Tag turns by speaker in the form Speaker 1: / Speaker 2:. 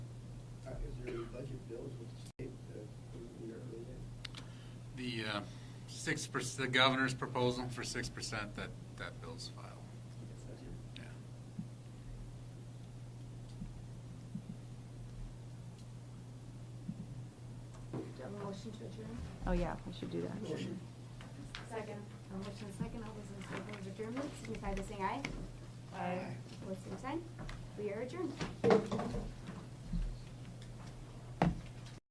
Speaker 1: Uh, your budget bills with the state, uh, in your early days?
Speaker 2: The uh, six percent, the governor's proposal for six percent, that, that bill's filed. Yeah.
Speaker 3: Do I have a motion to adjourn?
Speaker 4: Oh, yeah, I should do that.
Speaker 1: Motion.
Speaker 3: Second. A motion and second, all those in favor of adjournment, signify by saying aye.
Speaker 1: Aye.
Speaker 3: Opposed, same sign. We are adjourned.